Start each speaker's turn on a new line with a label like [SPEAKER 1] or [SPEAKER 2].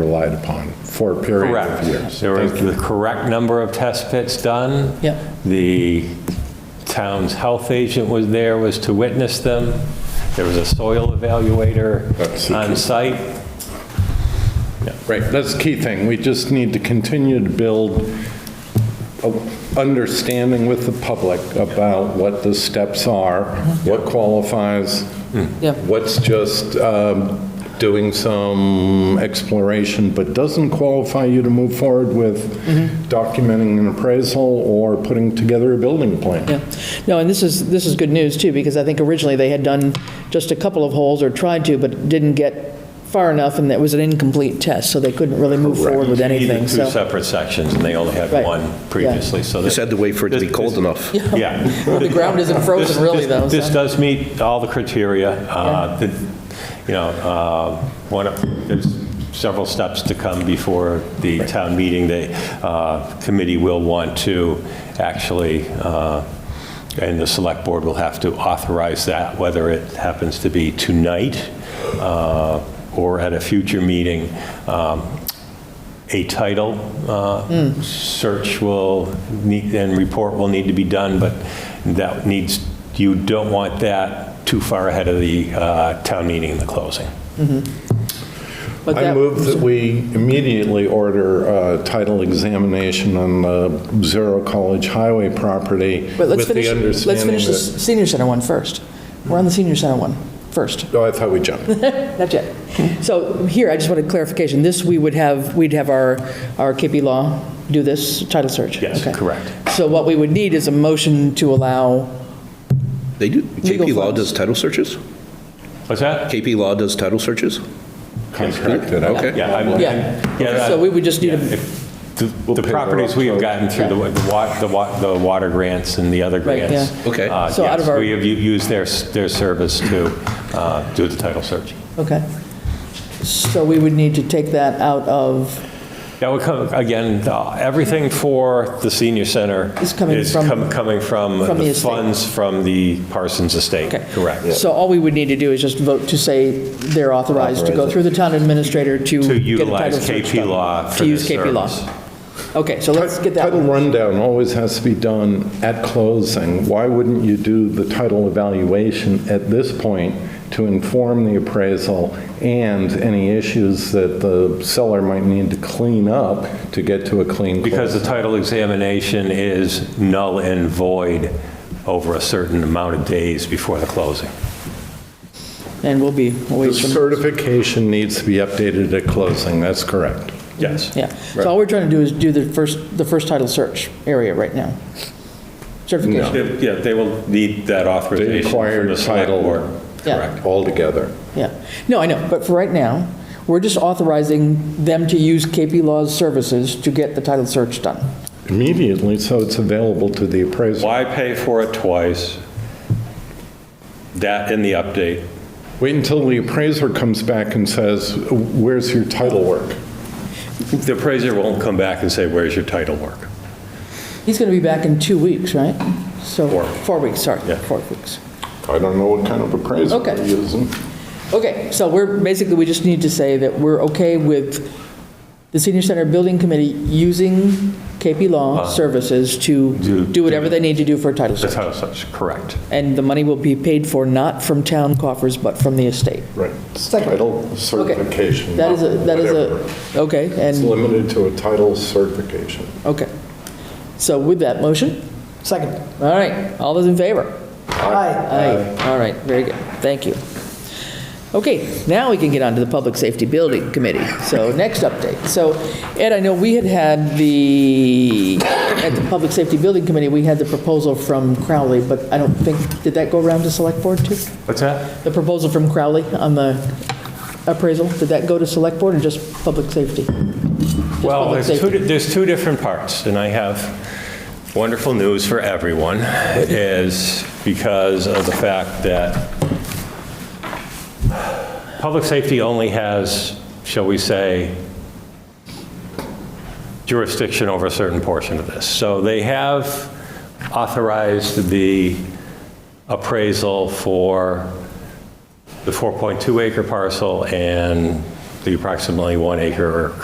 [SPEAKER 1] relied upon for a period
[SPEAKER 2] Correct.
[SPEAKER 1] of years.
[SPEAKER 2] There was
[SPEAKER 1] Thank you.
[SPEAKER 2] the correct number of test pits done.
[SPEAKER 3] Yep.
[SPEAKER 2] The town's health agent was there, was to witness them. There was a soil evaluator
[SPEAKER 1] That's the key.
[SPEAKER 2] on site.
[SPEAKER 1] Right, that's the key thing. We just need to continue to build a understanding with the public about what the steps are, what qualifies,
[SPEAKER 3] Yep.
[SPEAKER 1] what's just um, doing some exploration but doesn't qualify you to move forward with documenting an appraisal or putting together a building plan.
[SPEAKER 3] Yeah. No, and this is, this is good news, too, because I think originally they had done just a couple of holes, or tried to, but didn't get far enough, and that was an incomplete test, so they couldn't really move forward with anything,
[SPEAKER 2] Either Two
[SPEAKER 3] so.
[SPEAKER 2] separate sections, and they only had
[SPEAKER 3] Right.
[SPEAKER 2] one previously, so.
[SPEAKER 4] Just
[SPEAKER 2] that-
[SPEAKER 4] had to wait for it to be
[SPEAKER 2] this-
[SPEAKER 4] cold
[SPEAKER 2] this-
[SPEAKER 4] enough.
[SPEAKER 2] Yeah.
[SPEAKER 3] The ground isn't
[SPEAKER 2] This-
[SPEAKER 3] frozen,
[SPEAKER 2] this-
[SPEAKER 3] really, though,
[SPEAKER 2] This
[SPEAKER 3] so.
[SPEAKER 2] does meet all the criteria. uh, that, You know, uh, one, of- there's several steps to come before the town meeting. The uh, committee will want to actually, uh, and the select board will have to authorize that, whether it happens to be tonight uh, or at a future meeting. Um, a title uh, search will, need and report will need to be done, but that needs, you don't want that too far ahead of the uh, town meeting and the closing.
[SPEAKER 3] But
[SPEAKER 1] I
[SPEAKER 3] that-
[SPEAKER 1] move that we immediately order a title examination on the Zero College Highway property
[SPEAKER 3] But let's
[SPEAKER 1] with
[SPEAKER 3] finish,
[SPEAKER 1] the
[SPEAKER 3] let's
[SPEAKER 1] understanding
[SPEAKER 3] finish the
[SPEAKER 1] that...
[SPEAKER 3] senior center one first. We're on the senior center one first.
[SPEAKER 1] Oh, I thought we jumped.
[SPEAKER 3] Not yet. So here, I just wanted clarification. This, we would have, we'd have our, our KP Law do this title search?
[SPEAKER 2] Yes,
[SPEAKER 3] Okay.
[SPEAKER 2] correct.
[SPEAKER 3] So what we would need is a motion to allow,
[SPEAKER 4] They do, KP Law
[SPEAKER 3] funds.
[SPEAKER 4] does title searches?
[SPEAKER 2] What's that?
[SPEAKER 4] KP Law does title searches?
[SPEAKER 1] Corrected, okay.
[SPEAKER 2] Yeah. I'm-
[SPEAKER 3] yeah.
[SPEAKER 2] yeah,
[SPEAKER 3] So we would just need
[SPEAKER 2] yeah,
[SPEAKER 3] a
[SPEAKER 2] if The the
[SPEAKER 1] pick her up,
[SPEAKER 2] properties we have gotten through, the wa- the wa- the wa- the water grants and the other
[SPEAKER 3] Right,
[SPEAKER 2] grants.
[SPEAKER 4] yeah. Okay.
[SPEAKER 2] uh,
[SPEAKER 3] So out
[SPEAKER 2] yes,
[SPEAKER 3] of our-
[SPEAKER 2] We have u- used their, s- their service to uh, do the title search.
[SPEAKER 3] Okay. So we would need to take that out of,
[SPEAKER 2] That would come, again, uh, everything for the senior center
[SPEAKER 3] Is coming from-
[SPEAKER 2] com- coming from
[SPEAKER 3] from the
[SPEAKER 2] the
[SPEAKER 3] estate.
[SPEAKER 2] funds from the Parsons estate.
[SPEAKER 3] okay.
[SPEAKER 2] Correct.
[SPEAKER 3] So all we would need to do is just vote to say they're authorized to go through the town administrator
[SPEAKER 2] To
[SPEAKER 3] to get a title
[SPEAKER 2] utilize
[SPEAKER 3] search
[SPEAKER 2] KP
[SPEAKER 3] done.
[SPEAKER 2] Law for
[SPEAKER 3] To use
[SPEAKER 2] this
[SPEAKER 3] KP Law.
[SPEAKER 2] service.
[SPEAKER 3] Okay, so let's get that
[SPEAKER 1] Title
[SPEAKER 3] one.
[SPEAKER 1] rundown always has to be done at closing. Why wouldn't you do the title evaluation at this point to inform the appraisal and any issues that the seller might need to clean up to get to a clean close?
[SPEAKER 2] Because the title examination is null and void over a certain amount of days before the closing.
[SPEAKER 3] And we'll be away
[SPEAKER 1] The
[SPEAKER 3] from,
[SPEAKER 1] certification needs to be updated at closing, that's correct.
[SPEAKER 2] Yes.
[SPEAKER 3] yeah. So all we're trying to do is do the first, the first title search area right now. Certification,
[SPEAKER 2] Yeah, they will need that authorization
[SPEAKER 1] require
[SPEAKER 2] from the select
[SPEAKER 1] title.
[SPEAKER 2] board.
[SPEAKER 3] Yeah.
[SPEAKER 2] Correct.
[SPEAKER 1] Altogether.
[SPEAKER 3] yeah. No, I know, but for right now, we're just authorizing them to use KP Law's services to get the title search done.
[SPEAKER 1] Immediately, so it's available to the appraiser.
[SPEAKER 2] Why pay for it twice? That in the update.
[SPEAKER 1] Wait until the appraiser comes back and says, where's your title work?
[SPEAKER 2] The appraiser won't come back and say, where's your title work?
[SPEAKER 3] He's going to be back in two weeks, right? So,
[SPEAKER 2] Four.
[SPEAKER 3] four weeks, sorry,
[SPEAKER 2] Yeah.
[SPEAKER 3] four weeks.
[SPEAKER 1] I don't know what kind of appraiser
[SPEAKER 3] Okay.
[SPEAKER 1] we're using.
[SPEAKER 3] Okay, so we're, basically, we just need to say that we're okay with the Senior Center Building Committee using KP Law services to
[SPEAKER 2] Uh-huh. do-
[SPEAKER 3] do whatever they need to do for a title
[SPEAKER 2] The
[SPEAKER 3] search.
[SPEAKER 2] title search, correct.
[SPEAKER 3] And the money will be paid for not from town coffers, but from the estate.
[SPEAKER 1] Right. Title
[SPEAKER 3] Okay.
[SPEAKER 1] certification.
[SPEAKER 3] That is a, that is
[SPEAKER 1] whatever.
[SPEAKER 3] a, okay,
[SPEAKER 1] It's
[SPEAKER 3] and,
[SPEAKER 1] limited to a title certification.
[SPEAKER 3] okay. So with that motion? Second. All right, all those in favor? Aye. Aye, all right, very good, thank you. Okay, now we can get on to the Public Safety Building Committee. So next update. So Ed, I know we had had the, at the Public Safety Building Committee, we had the proposal from Crowley, but I don't think, did that go around to Select Board too?
[SPEAKER 2] What's that?
[SPEAKER 3] The proposal from Crowley on the appraisal, did that go to Select Board or just Public Safety? Just
[SPEAKER 2] Well,
[SPEAKER 3] public
[SPEAKER 2] there's two,
[SPEAKER 3] safety.
[SPEAKER 2] there's two different parts, and I have wonderful news for everyone, is because of the fact that public safety only has, shall we say, jurisdiction over a certain portion of this. So they have authorized the appraisal for the 4.2 acre parcel and the approximately one acre